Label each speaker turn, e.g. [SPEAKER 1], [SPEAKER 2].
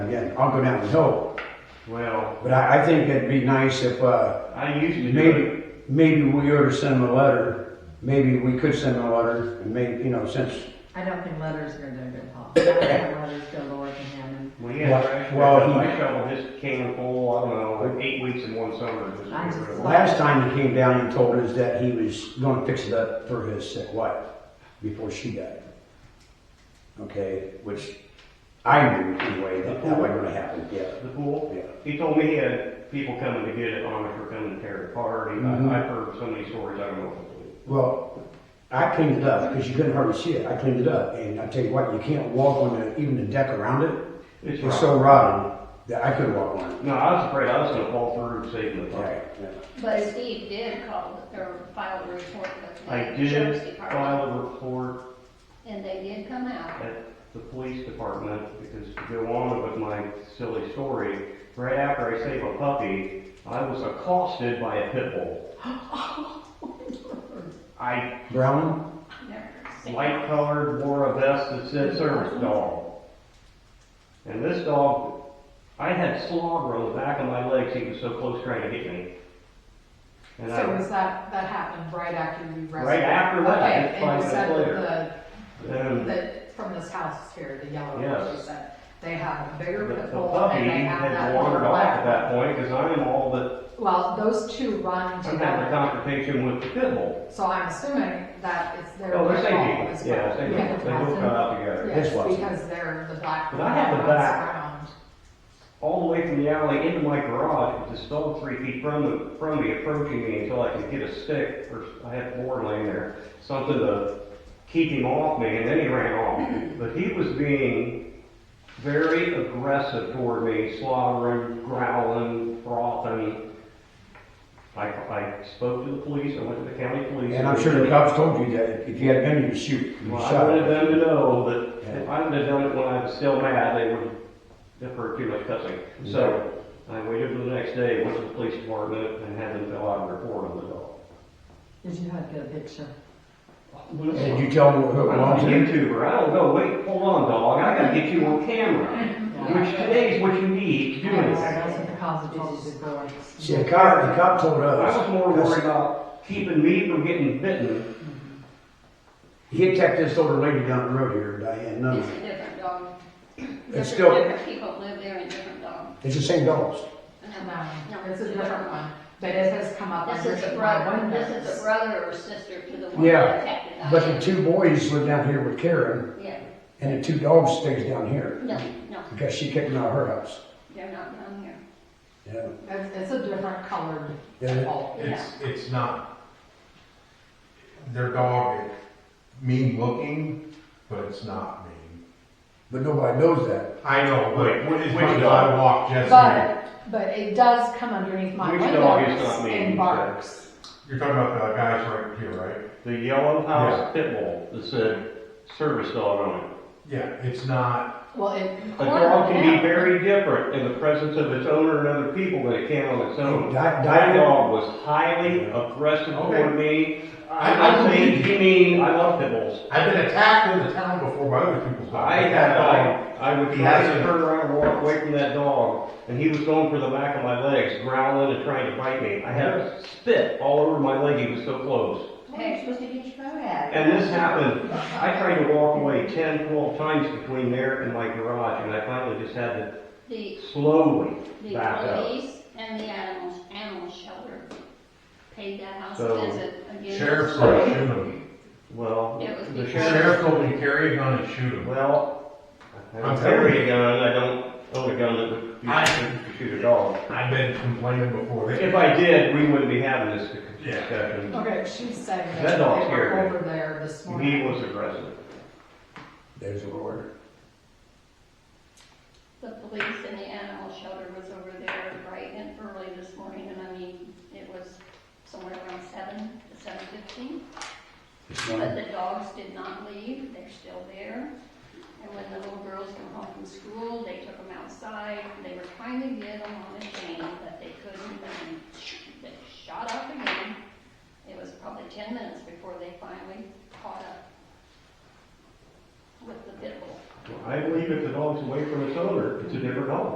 [SPEAKER 1] yeah, I'll go down and help.
[SPEAKER 2] Well,
[SPEAKER 1] But I, I think it'd be nice if, uh,
[SPEAKER 2] I usually do it.
[SPEAKER 1] maybe, maybe we ought to send them a letter. Maybe we could send them a letter and maybe, you know, since,
[SPEAKER 3] I don't think letters are gonna do it, Paul. I don't think letters go to work in him.
[SPEAKER 2] We had
[SPEAKER 1] Well-
[SPEAKER 2] trash
[SPEAKER 1] well,
[SPEAKER 2] pickup.
[SPEAKER 1] he-
[SPEAKER 2] I shoveled his can full, I don't know, eight weeks in one summer. just
[SPEAKER 3] I
[SPEAKER 2] get
[SPEAKER 3] just
[SPEAKER 2] rid of it.
[SPEAKER 1] last time he came down and told us that he was gonna fix it up for his sick wife before she died. Okay, which I knew anyway, that that wasn't gonna happen, yeah.
[SPEAKER 2] The pool,
[SPEAKER 1] Yeah.
[SPEAKER 2] he told me he had people coming to get it on it or coming to tear it apart. He-
[SPEAKER 1] Mhm.
[SPEAKER 2] I- I've heard so many stories, I don't know. if it's-
[SPEAKER 1] Well, I cleaned it up because you couldn't hardly see it. I cleaned it up, and I tell you what, you can't walk on the, even the deck around it.
[SPEAKER 2] It's
[SPEAKER 1] It's
[SPEAKER 2] rotten.
[SPEAKER 1] so rotten that I couldn't walk on it.
[SPEAKER 2] No, I was afraid I was gonna fall through and save the fire.
[SPEAKER 4] But Steve did call, or file a report with
[SPEAKER 2] I
[SPEAKER 4] the sheriff's
[SPEAKER 2] did
[SPEAKER 4] department,
[SPEAKER 2] file a report
[SPEAKER 4] and they did come out.
[SPEAKER 2] at the police department, because to go on with my silly story, right after I save a puppy, I was accosted by a pit bull. I,
[SPEAKER 1] Brown,
[SPEAKER 2] light colored, wore a vest that said service dog. And this dog, I had slobber on the back of my legs, he was so close trying to hit me. And
[SPEAKER 5] So
[SPEAKER 2] I,
[SPEAKER 5] was that, that happened right after you rescued?
[SPEAKER 2] Right after that,
[SPEAKER 5] Okay,
[SPEAKER 2] just
[SPEAKER 5] and
[SPEAKER 2] five
[SPEAKER 5] you said
[SPEAKER 2] minutes
[SPEAKER 5] that the,
[SPEAKER 2] then
[SPEAKER 5] that from this house here, the yellow
[SPEAKER 2] Yes.
[SPEAKER 5] one, you said, they have a
[SPEAKER 2] the
[SPEAKER 5] bigger
[SPEAKER 2] the
[SPEAKER 5] pit bull and
[SPEAKER 2] puppy
[SPEAKER 5] they have
[SPEAKER 2] had
[SPEAKER 5] that little
[SPEAKER 2] wandered off at
[SPEAKER 5] black.
[SPEAKER 2] that point, because I'm all that,
[SPEAKER 5] Well, those two run
[SPEAKER 2] I'm having a
[SPEAKER 5] together,
[SPEAKER 2] confrontation with the pit bull.
[SPEAKER 5] so I'm assuming that it's their.
[SPEAKER 2] Oh, they're
[SPEAKER 5] pit
[SPEAKER 2] same
[SPEAKER 5] bull
[SPEAKER 2] people,
[SPEAKER 5] as
[SPEAKER 2] yeah,
[SPEAKER 5] well.
[SPEAKER 2] same
[SPEAKER 5] Yeah,
[SPEAKER 2] people, they both got out together.
[SPEAKER 5] Yes,
[SPEAKER 1] This was-
[SPEAKER 5] because they're the black.
[SPEAKER 2] But I had the
[SPEAKER 5] ones
[SPEAKER 2] back.
[SPEAKER 5] around.
[SPEAKER 2] All the way from the alley into my garage, with this dog three feet from the, from me, approaching me until I could get a stick, or I had board laying there, something to keep him off me, and then he ran off. But he was being very aggressive toward me, slobbering, growling, frothing. I, I spoke to the police, I went to the county police.
[SPEAKER 1] and I'm sure the cops told you that if you had been, you'd shoot. You'd
[SPEAKER 2] Well, I
[SPEAKER 1] shot.
[SPEAKER 2] wanted them to know that if I would have done it when I was still mad, they would have heard too much cussing. So I waited till the next day, went to the police department and had them fill out a report on the dog.
[SPEAKER 3] Did you have to get a picture?
[SPEAKER 1] Did you tell them who it
[SPEAKER 2] I'm
[SPEAKER 1] belonged
[SPEAKER 2] a
[SPEAKER 1] to?
[SPEAKER 2] YouTuber, I don't know, wait, hold on, dog, I gotta get you on camera. Which today is what you need to do anything.
[SPEAKER 3] That's what the cause of all this
[SPEAKER 1] See, the cop, the cop told
[SPEAKER 2] I was
[SPEAKER 1] us.
[SPEAKER 2] more worried about keeping me from getting bitten.
[SPEAKER 1] He attacked this older lady down the road here, Diane
[SPEAKER 4] It's
[SPEAKER 1] Nunn.
[SPEAKER 4] a different dog.
[SPEAKER 1] It's
[SPEAKER 4] Different-
[SPEAKER 1] still-
[SPEAKER 4] Different people live there and different dogs.
[SPEAKER 1] It's the same dogs.
[SPEAKER 5] No,
[SPEAKER 4] No,
[SPEAKER 5] um, it's a different one, but it has come up
[SPEAKER 4] This
[SPEAKER 5] under
[SPEAKER 4] is a
[SPEAKER 5] my
[SPEAKER 4] brother,
[SPEAKER 5] windows.
[SPEAKER 4] this is a brother or sister to the one
[SPEAKER 1] Yeah,
[SPEAKER 4] that attacked the
[SPEAKER 1] But the
[SPEAKER 4] dog.
[SPEAKER 1] two boys live down here with Karen,
[SPEAKER 4] Yeah,
[SPEAKER 1] and the two dogs stays down here
[SPEAKER 4] no, no,
[SPEAKER 1] because she kicked them out of her house.
[SPEAKER 4] they're not down here.
[SPEAKER 1] Yeah.
[SPEAKER 5] It's, it's a different colored
[SPEAKER 1] Yeah, it-
[SPEAKER 5] pole.
[SPEAKER 6] It's, it's not, their dog is mean looking, but it's not mean.
[SPEAKER 1] But nobody knows that.
[SPEAKER 6] I know, but
[SPEAKER 2] Which- which
[SPEAKER 6] when
[SPEAKER 2] dog?
[SPEAKER 6] I walk Jesse,
[SPEAKER 5] But, but it does come underneath my
[SPEAKER 2] Which dog is
[SPEAKER 5] windows
[SPEAKER 2] not mean,
[SPEAKER 5] and
[SPEAKER 2] sir?
[SPEAKER 5] barks.
[SPEAKER 6] you're talking about the guys right here, right?
[SPEAKER 2] The yellow
[SPEAKER 6] house
[SPEAKER 2] pit bull that said service dog on it.
[SPEAKER 6] Yeah, it's not,
[SPEAKER 5] Well, it.
[SPEAKER 2] A dog can be very different in the presence of its owner and other people than it can on its
[SPEAKER 6] Oh,
[SPEAKER 2] own.
[SPEAKER 1] Di-
[SPEAKER 2] That
[SPEAKER 1] Diane-
[SPEAKER 2] dog was highly aggressive
[SPEAKER 6] Okay.
[SPEAKER 2] toward me.
[SPEAKER 6] I-
[SPEAKER 2] I, I
[SPEAKER 6] I
[SPEAKER 2] think
[SPEAKER 6] believe
[SPEAKER 2] he mean, I love pit bulls.
[SPEAKER 6] I've been attacked in the town before by other people's dogs.
[SPEAKER 2] I
[SPEAKER 6] That
[SPEAKER 2] had,
[SPEAKER 6] dog-
[SPEAKER 2] I, I would
[SPEAKER 6] He
[SPEAKER 2] try
[SPEAKER 6] has
[SPEAKER 2] to
[SPEAKER 6] a-
[SPEAKER 2] turn around and walk away from that dog, and he was going for the back of my legs, growling and trying to bite me. I had a spit all over my leg, he was so close.
[SPEAKER 4] Hey, you're supposed to get your phone out.
[SPEAKER 2] And this happened, I tried to walk away 10, 12 times between there and my garage, and I finally just had to
[SPEAKER 4] The
[SPEAKER 2] slowly
[SPEAKER 4] The
[SPEAKER 2] back up.
[SPEAKER 4] police and the animals, animal shelter paid that house
[SPEAKER 2] So,
[SPEAKER 4] a visit again.
[SPEAKER 6] Sheriff's gonna shoot him.
[SPEAKER 2] Well,
[SPEAKER 4] It was
[SPEAKER 2] the
[SPEAKER 4] the
[SPEAKER 6] The
[SPEAKER 2] sheriff,
[SPEAKER 6] sheriff told me carry a gun and shoot him.
[SPEAKER 2] well, I
[SPEAKER 6] I'm
[SPEAKER 2] don't
[SPEAKER 6] telling
[SPEAKER 2] carry a gun, I don't own a gun that would be
[SPEAKER 6] I-
[SPEAKER 2] used to shoot a dog.
[SPEAKER 6] I've been complaining before. They-
[SPEAKER 2] If I did, we wouldn't be having this discussion.
[SPEAKER 5] Okay, she's saying
[SPEAKER 2] That
[SPEAKER 5] that they
[SPEAKER 2] dog's here.
[SPEAKER 5] were over there this
[SPEAKER 2] He
[SPEAKER 5] morning.
[SPEAKER 2] was aggressive.
[SPEAKER 1] There's a word.
[SPEAKER 4] The police and the animal shelter was over there bright and early this morning, and I mean, it was somewhere around seven to seven fifteen.
[SPEAKER 1] It's
[SPEAKER 4] But
[SPEAKER 1] not-
[SPEAKER 4] the dogs did not leave, they're still there. And when the little girls come home from school, they took them outside, they were trying to get them on a chain, but they couldn't, and they shot up again. It was probably ten minutes before they finally caught up with the pit bull.
[SPEAKER 2] Well, I I believe if the dog's away from its owner, it's a different dog.